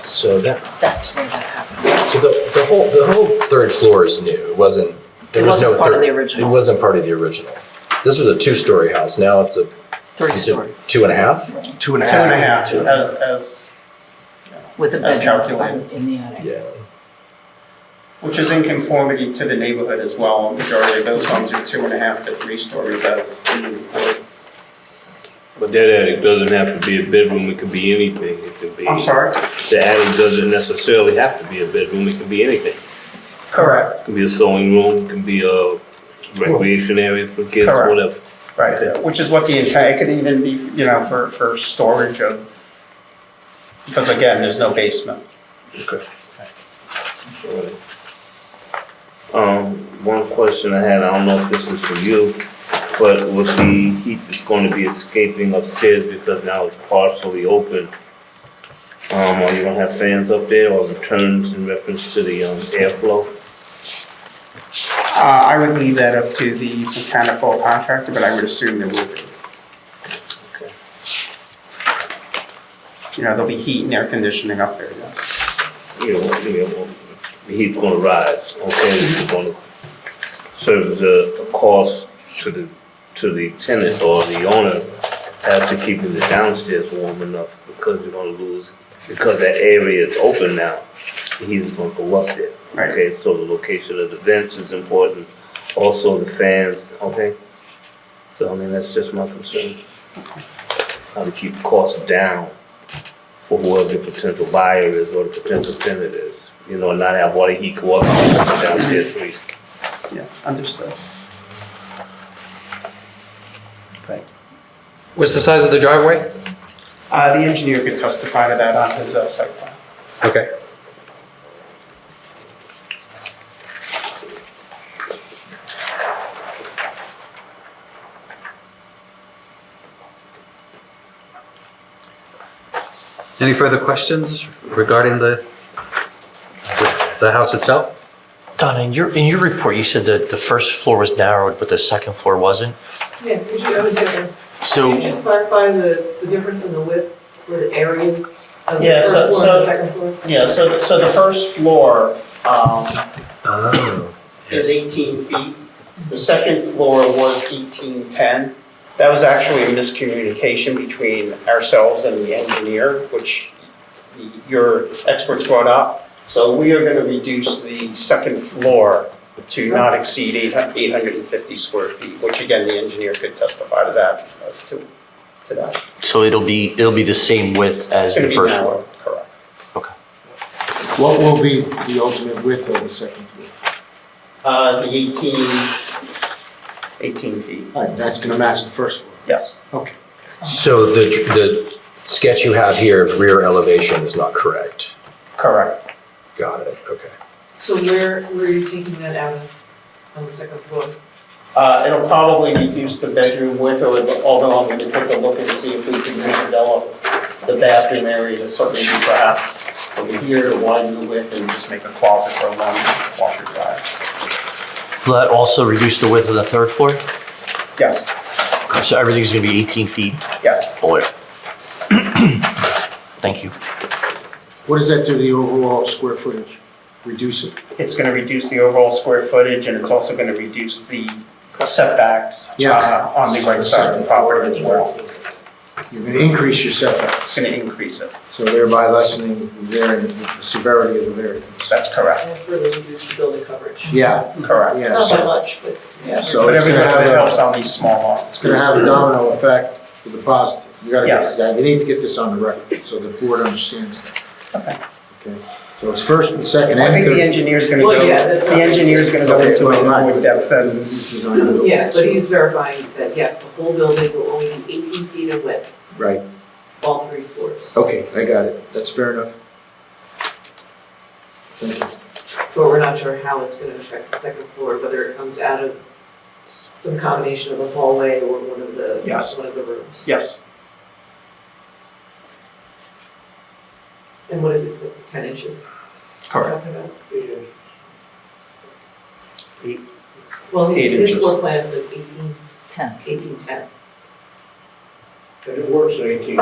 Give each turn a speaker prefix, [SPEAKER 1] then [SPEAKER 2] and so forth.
[SPEAKER 1] that,
[SPEAKER 2] That's never happened.
[SPEAKER 1] so the, the whole, the whole third floor is new. It wasn't, there
[SPEAKER 2] It
[SPEAKER 1] was no.
[SPEAKER 2] wasn't part of
[SPEAKER 1] third-
[SPEAKER 2] the original.
[SPEAKER 1] It wasn't part of the original. This was a two-story house. Now it's a,
[SPEAKER 2] Three
[SPEAKER 1] it's a
[SPEAKER 2] story
[SPEAKER 1] two and a half?
[SPEAKER 3] Two and a
[SPEAKER 4] Two and a
[SPEAKER 3] half.
[SPEAKER 4] half, as, as,
[SPEAKER 2] with a
[SPEAKER 4] As
[SPEAKER 2] bedroom
[SPEAKER 4] calculated.
[SPEAKER 2] in the attic.
[SPEAKER 1] Yeah.
[SPEAKER 4] which is in conformity to the neighborhood as well. Majority of those homes are two and a half to three stories as in the report.
[SPEAKER 5] But that attic doesn't have to be a bedroom, it could be anything, it could be.
[SPEAKER 4] I'm sorry?
[SPEAKER 5] The attic doesn't necessarily have to be a bedroom, it can be anything.
[SPEAKER 4] Correct,
[SPEAKER 5] It can be a sewing room, it can be a recreation area for kids,
[SPEAKER 4] Correct.
[SPEAKER 5] whatever.
[SPEAKER 4] right, which is what the entire, it could even be, you know, for, for storage of, because again, there's no basement.
[SPEAKER 5] Okay. Um, one question I had, I don't know if this is for you, but with the heat that's gonna be escaping upstairs because now it's partially open, um, are you gonna have fans up there or returns in reference to the, um, airflow?
[SPEAKER 4] Uh, I would leave that up to the mechanical contractor, but I would assume there will be. You know, there'll be heat and air conditioning up there, yes.
[SPEAKER 5] you know, you know, the heat's gonna rise, okay, this is gonna serve as a, a cost to the, to the tenant or the owner after keeping the downstairs warm enough, because you're gonna lose, because that area is open now, the heat is gonna go up there.
[SPEAKER 4] Right.
[SPEAKER 5] Okay, so the location of the vents is important, also the fans, okay? So, I mean, that's just my concern. How to keep costs down for whoever the potential buyer is or the potential tenant is. You know, not have water heat go up and go downstairs free.
[SPEAKER 4] Yeah, understood. Right.
[SPEAKER 1] What's the size of the driveway?
[SPEAKER 4] Uh, the engineer could testify to that on his uh, site plan.
[SPEAKER 1] Okay. Any further questions regarding the, the house itself?
[SPEAKER 6] Donna, in your, in your report, you said that the first floor was narrowed, but the second floor wasn't.
[SPEAKER 7] Yeah, could you, I was gonna ask,
[SPEAKER 6] So,
[SPEAKER 7] could you just clarify the, the difference in the width or the areas of the
[SPEAKER 4] Yeah,
[SPEAKER 7] first
[SPEAKER 4] so-
[SPEAKER 7] floor and
[SPEAKER 4] so-
[SPEAKER 7] the second floor?
[SPEAKER 4] Yeah, so, so the first floor, um,
[SPEAKER 1] Oh,
[SPEAKER 4] is
[SPEAKER 1] yes.
[SPEAKER 4] 18 feet. The second floor was 1810. That was actually a miscommunication between ourselves and the engineer, which the- your experts brought up. So we are going to reduce the second floor to not exceed 800 850 square feet, which again, the engineer could testify to that as to, to that.
[SPEAKER 6] so it'll be, it'll be the same width as
[SPEAKER 4] It's going
[SPEAKER 6] the
[SPEAKER 4] to be
[SPEAKER 6] first floor?
[SPEAKER 4] narrow, Correct.
[SPEAKER 6] Okay.
[SPEAKER 3] What will be the ultimate width of the second floor?
[SPEAKER 4] Uh, The 18, 18 feet,
[SPEAKER 3] All right, that's gonna match the first floor.
[SPEAKER 4] yes.
[SPEAKER 3] Okay.
[SPEAKER 1] So the, the sketch you have here of rear elevation is not correct.
[SPEAKER 4] Correct.
[SPEAKER 1] Got it, okay.
[SPEAKER 7] So where, where are you taking that out of, on the second floor?
[SPEAKER 4] Uh, it'll probably reduce the bedroom width, or although I'm gonna take a look and see if we can redevelop the bathroom area to sort of maybe perhaps over here to widen the width and just make a closet for a long washer dryer.
[SPEAKER 6] Will that also reduce the width of the third floor?
[SPEAKER 4] Yes,
[SPEAKER 6] So everything's gonna be 18 feet
[SPEAKER 4] yes.
[SPEAKER 6] or? Thank you.
[SPEAKER 3] What does that do to the overall square footage? Reduce it?
[SPEAKER 4] It's gonna reduce the overall square footage and it's also gonna reduce the setbacks
[SPEAKER 3] Yeah.
[SPEAKER 4] uh, on the right side of the property as well.
[SPEAKER 3] You're gonna increase your setback,
[SPEAKER 4] It's gonna increase it.
[SPEAKER 3] so thereby lessening the variance, the severity of the variance.
[SPEAKER 4] That's correct,
[SPEAKER 7] And further reduce the building coverage?
[SPEAKER 3] Yeah,
[SPEAKER 4] correct.
[SPEAKER 3] yeah.
[SPEAKER 7] Not by
[SPEAKER 3] so-
[SPEAKER 7] much, but yeah.
[SPEAKER 3] So
[SPEAKER 4] But
[SPEAKER 3] it's
[SPEAKER 4] everything
[SPEAKER 3] gonna
[SPEAKER 4] that
[SPEAKER 3] have
[SPEAKER 4] helps
[SPEAKER 3] a,
[SPEAKER 4] on these small lots.
[SPEAKER 3] it's gonna have a domino effect to the positive. You gotta,
[SPEAKER 4] Yes.
[SPEAKER 3] get- you need to get this on the record, so the board understands that.
[SPEAKER 4] Okay.
[SPEAKER 3] Okay, so it's first and second
[SPEAKER 4] I
[SPEAKER 3] and
[SPEAKER 4] think the
[SPEAKER 3] third.
[SPEAKER 4] engineer's gonna go,
[SPEAKER 7] Well, yeah, that's
[SPEAKER 4] the
[SPEAKER 7] not-
[SPEAKER 4] engineer's gonna go into it more depth than
[SPEAKER 3] Design.
[SPEAKER 7] Yeah, but he's verifying that, yes, the whole building will only be eighteen feet in width,
[SPEAKER 3] Right,
[SPEAKER 7] all three floors.
[SPEAKER 3] okay, I got it. That's fair enough. Thank you.
[SPEAKER 7] But we're not sure how it's gonna affect the second floor, whether it comes out of some combination of a hallway or one of the,
[SPEAKER 4] Yes.
[SPEAKER 7] one of the rooms.
[SPEAKER 4] Yes.
[SPEAKER 7] And what is it, ten inches?
[SPEAKER 4] Correct.
[SPEAKER 7] Well, his,
[SPEAKER 4] Eight
[SPEAKER 7] his
[SPEAKER 4] inches.
[SPEAKER 7] floor plan says eighteen,
[SPEAKER 2] Ten.
[SPEAKER 7] eighteen ten.
[SPEAKER 8] And it works at eighteen